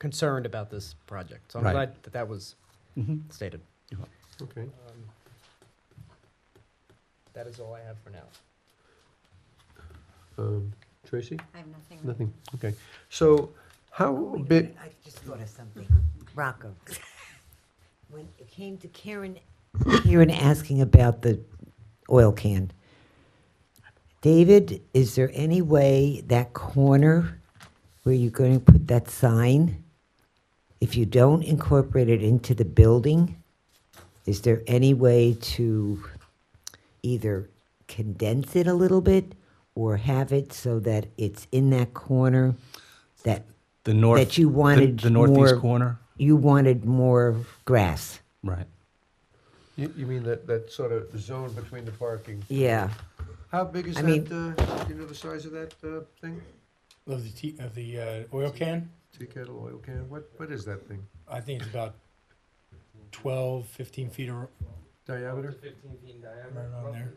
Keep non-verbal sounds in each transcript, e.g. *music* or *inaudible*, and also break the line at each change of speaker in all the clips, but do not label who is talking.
concerned about this project. So I'm
Right.
glad that that was
Mhm.
stated.
Okay.
Um, That is all I have for now.
Um, Tracy?
I have nothing.
Nothing. Okay. So how
Wait a
big,
minute, I just thought of something. Rocco, when it came to Karen, Karen asking about the oil can. David, is there any way that corner where you're going to put that sign, if you don't incorporate it into the building, is there any way to either condense it a little bit or have it so that it's in that corner that
The north.
That you
the-
wanted
The northeast
more-
corner,
you wanted more grass.
right.
you, you mean that, that sort of zone between the parking?
Yeah.
How big is
I
that,
mean-
uh, you know, the size of that, uh, thing?
Of the tea, of the uh, oil can,
Tea kettle, oil can, what, what is that thing?
I think it's about 12, 15 feet ar-
Diameter?
Fifteen feet in
right
diameter.
around there.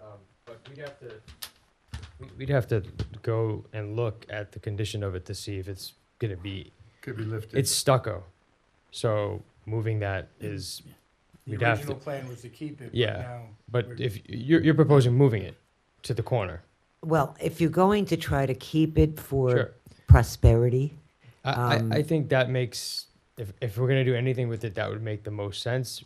Um, But we'd have to, we- we'd have to go and look at the condition of it to see if it's gonna be,
Could be lifted.
it's stucco. So moving that is,
The
We'd have
original
to-
plan was to keep it. but
Yeah,
now
but
we're-
if, you're, you're proposing moving it to the corner.
Well, if you're going to try to keep it for
Sure.
prosperity,
I, I, I
Um,
think that makes, if, if we're gonna do anything with it, that would make the most sense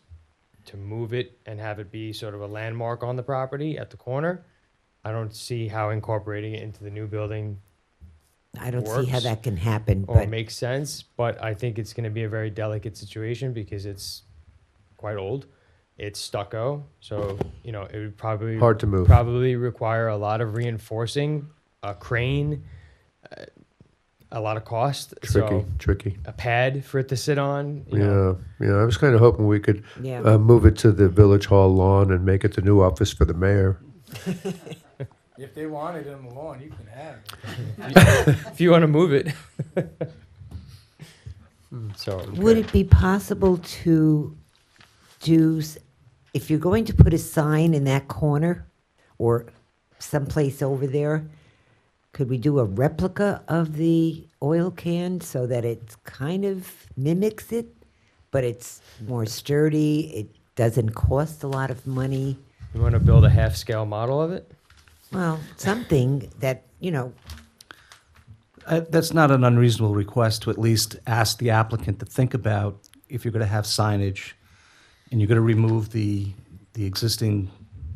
to move it and have it be sort of a landmark on the property at the corner. I don't see how incorporating it into the new building
I don't see how
Works. Oh,
that can happen.
or
But
makes sense, but I think it's going to be a very delicate situation because it's quite old. It's stucco, so you know it would probably
Hard to move.
probably require a lot of reinforcing, a crane, uh, a lot of cost.
Tricky,
So
tricky.
a pad for it to sit on. You Know.
Yeah, yeah, I was kind of hoping we could,
yeah,
uh, move it to the village hall lawn and make it the new office for the mayor.
If they wanted it on the lawn, you can have it.
if you want to
*laughs*
move it. so
would it be possible to do s- if you're going to put a sign in that corner or someplace over there? Could we do a replica of the oil can so that it kind of mimics it, but it's more sturdy? It doesn't cost a lot of money.
you want to build a half scale model of it?
Well, something that, you know,
Uh, That's not an unreasonable request to at least ask the applicant to think about if you're going to have signage and you're going to remove the, the existing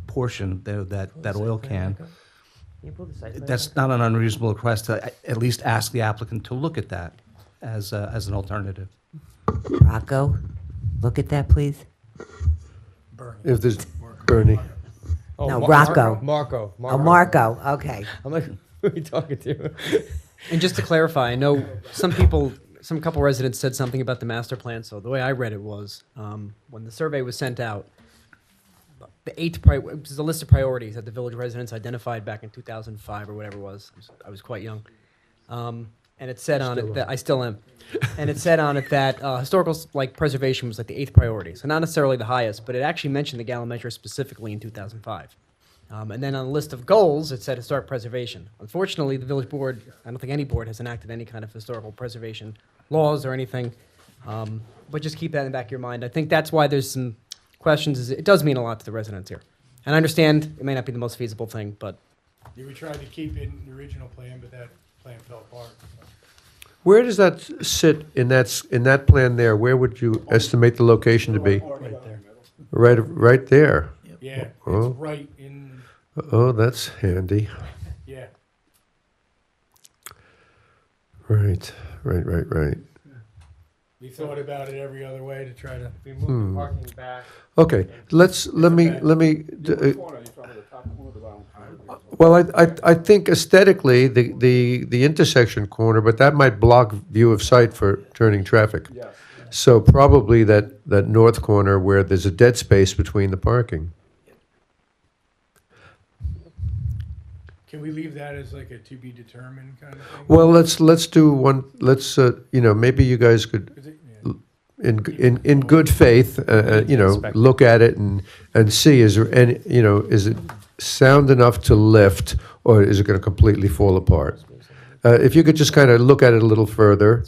portion, tho- that, that oil can. That's not an unreasonable request to a- at least ask the applicant to look at that as, a- as an alternative.
Rocco, look at that, please.
Bernie.
If there's, Bernie,
Oh,
No,
Mar-
Rocco.
Marco.
Oh, Marco, okay.
I'm like, who *laughs* are you talking to?
And just to clarify, I know some people, some couple residents said something about the master plan. So the way I read it was, um, when the survey was sent out, the eighth prior, which is a list of priorities that the village residents identified back in 2005 or whatever it was. I was, I was quite young. Um, and it said on it that I still am. And it said on it that uh, historical s- like preservation was like the eighth priority, so not necessarily the highest, but it actually mentioned the Gallup measure specifically in 2005. Um, and then on the list of goals, it said historic preservation. Unfortunately, the village board, I don't think any board has enacted any kind of historical preservation laws or anything. Um, but just keep that in the back of your mind. I think that's why there's some questions. Is it does mean a lot to the residents here, and I understand it may not be the most feasible thing, but
Yeah, We tried to keep it in the original plan, but that plan fell apart. so.
where does that sit in that, s- in that plan there? Where would you estimate the location to be?
Right there.
Right, right there.
Yeah,
Oh.
it's right in,
Oh, that's handy.
yeah.
Right, right, right, right.
We thought about it every other way to try to,
We
Hmm.
moved the parking back.
Okay, let's, let me, let me, d- uh, well, I, I, I think aesthetically, the, the, the intersection corner, but that might block view of sight for turning traffic. So probably that, that north corner where there's a dead space between the parking.
can we leave that as like a to be determined kind of thing?
Well, let's, let's do one, let's, uh, you know, maybe you guys could,
'Cause it- yeah.
in, in, in good faith, uh, uh, you know,
Inspect.
look at it and, and see, is there any, you know, is it sound enough to lift, or is it gonna completely fall apart? Uh, if you could just kind of look at it a little further,